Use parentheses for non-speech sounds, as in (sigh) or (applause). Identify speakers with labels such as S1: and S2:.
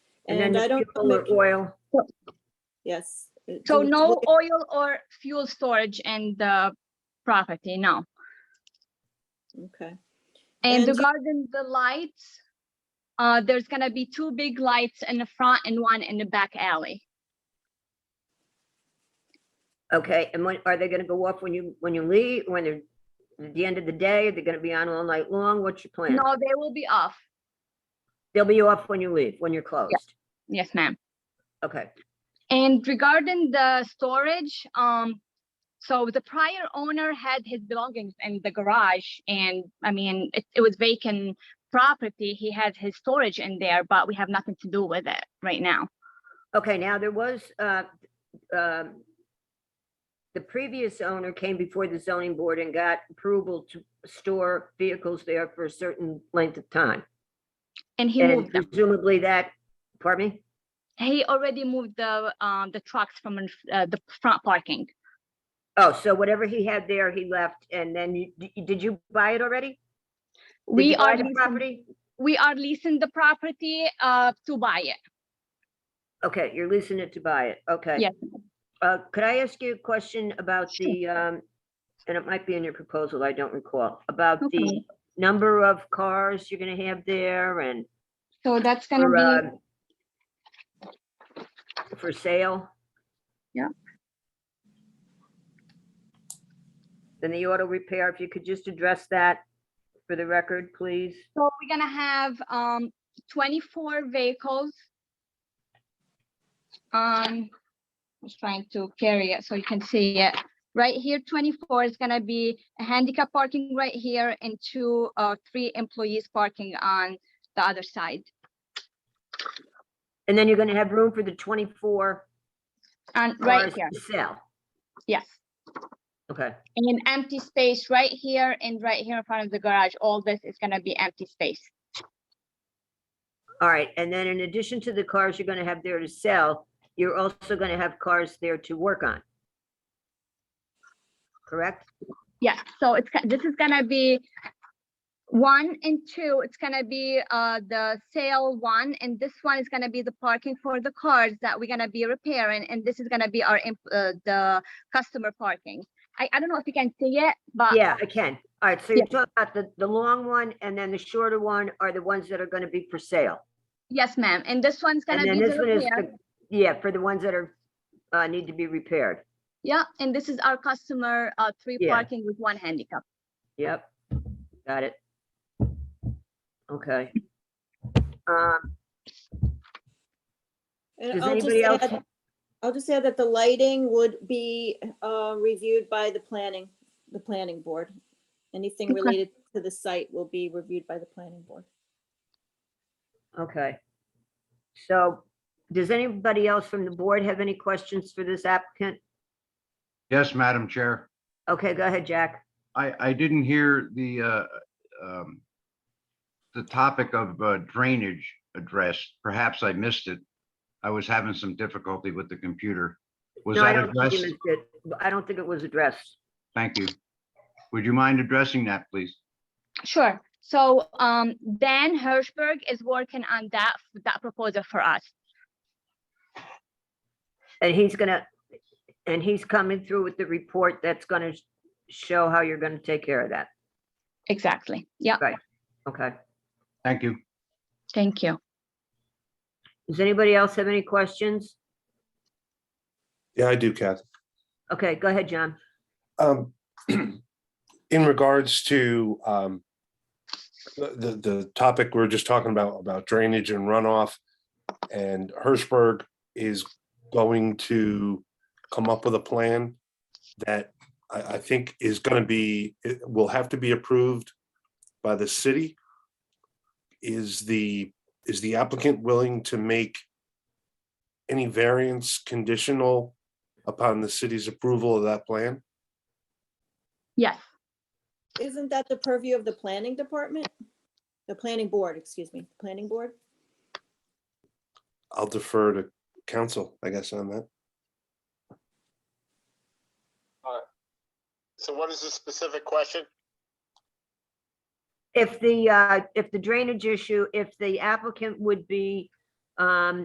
S1: And then
S2: And I
S1: the
S2: don't
S1: fuel or
S2: think-
S1: oil.
S2: Yes. uh, it-
S3: So
S2: it-
S3: no oil or fuel storage in the property, no.
S2: Okay,
S3: And
S2: And-
S3: regarding the lights, uh, there's gonna be two big lights in the front and one in the back alley.
S1: Okay, and when, are they gonna go off when you, when you leave, when they're, at the end of the day, they're gonna be on all night long? What's your plan?
S3: No, they will be off.
S1: They'll be off when you leave, when you're closed.
S3: Yes, ma'am.
S1: Okay,
S3: And regarding the storage, um, so the prior owner had his belongings in the garage and, I mean, it, it was vacant property. He had his storage in there, but we have nothing to do with it right now.
S1: okay, now there was, uh, um, the previous owner came before the zoning board and got approval to store vehicles there for a certain length of time.
S3: And he
S1: And
S3: moved them.
S1: presumably that, pardon me?
S3: He already moved the, um, the trucks from in f- uh, the front parking.
S1: Oh, so whatever he had there, he left, and then you, d- did you buy it already? Did
S3: We
S1: you buy
S3: are,
S1: the
S3: leasing-
S1: Property?
S3: we are leasing the property, uh, to buy it.
S1: Okay, you're leasing it to buy it, okay.
S3: Yes.
S1: Uh, could I ask you a question about
S3: Sure.
S1: the, um, and it might be in your proposal, I don't recall, about
S3: No
S1: the
S3: problem.
S1: number of cars you're gonna have there and
S3: So that's gonna
S1: for,
S3: be,
S1: um, for sale?
S3: Yeah.
S1: Then the auto repair, if you could just address that for the record, please?
S3: so we're gonna have, um, twenty-four vehicles. Um, just trying to carry it so you can see it. Right here, twenty-four is gonna be a handicap parking right here and two, uh, three employees parking on the other side.
S1: And then you're gonna have room for the twenty-four
S3: And right
S1: cars
S3: here,
S1: to sell.
S3: yes.
S1: Okay,
S3: And an empty space right here and right here in front of the garage. All this is gonna be empty space.
S1: all right. And then in addition to the cars you're gonna have there to sell, you're also gonna have cars there to work on. Correct?
S3: Yeah, so it's, go- this is gonna be one and two, it's gonna be uh the sale one, and this one is gonna be the parking for the cars that we're gonna be repairing, and this is gonna be our, imp- uh, the customer parking. I, I don't know if you can see it, but
S1: Yeah, I can. All right, so you're
S3: Uh, yeah.
S1: talking about the, the long one and then the shorter one are the ones that are gonna be for sale.
S3: yes, ma'am, and this one's gonna
S1: And
S3: be
S1: then this
S3: the
S1: one is,
S3: repair.
S1: the- yeah, for the ones that are, uh, need to be repaired.
S3: Yeah, and this is our customer, uh, three
S1: Yeah.
S3: parking with one handicap.
S1: Yep, got it. Okay. Um,
S2: and
S1: does
S2: I'll just
S1: anybody else?
S2: add, I'll just add that the lighting would be uh, reviewed by the planning, the planning board. Anything
S3: Okay.
S2: related to the site will be reviewed by the planning board.
S1: Okay. So does anybody else from the board have any questions for this applicant?
S4: Yes, Madam Chair.
S1: Okay, go ahead, Jack.
S4: I, I didn't hear the, uh, um, the topic of uh, drainage addressed. Perhaps I missed it. I was having some difficulty with the computer. Was
S1: No, I
S4: that
S1: don't think you
S4: addressed?
S1: missed it. I don't think it was addressed.
S4: Thank you. Would you mind addressing that, please?
S3: Sure, so, um, Dan Hirschberg is working on that, that proposal for us.
S1: And he's gonna, and he's coming through with the report that's gonna sh- show how you're gonna take care of that.
S3: Exactly, yeah,
S1: Okay.
S4: Thank you.
S3: thank you.
S1: Does anybody else have any questions?
S5: Yeah, I do, Kath.
S1: Okay, go ahead, John.
S5: Um, (clears throat) in regards to, um, the, the, the topic we are just talking about, about drainage and runoff, and Hirschberg is going to come up with a plan that I, I think is gonna be, it will have to be approved by the city. Is the, is the applicant willing to make any variance conditional upon the city's approval of that plan?
S3: Yes,
S2: Isn't that the purview of the planning department? The planning board, excuse me, planning board?
S5: I'll defer to council, I guess, on that.
S6: So what is the specific question?
S1: If the, uh, if the drainage issue, if the applicant would be, um,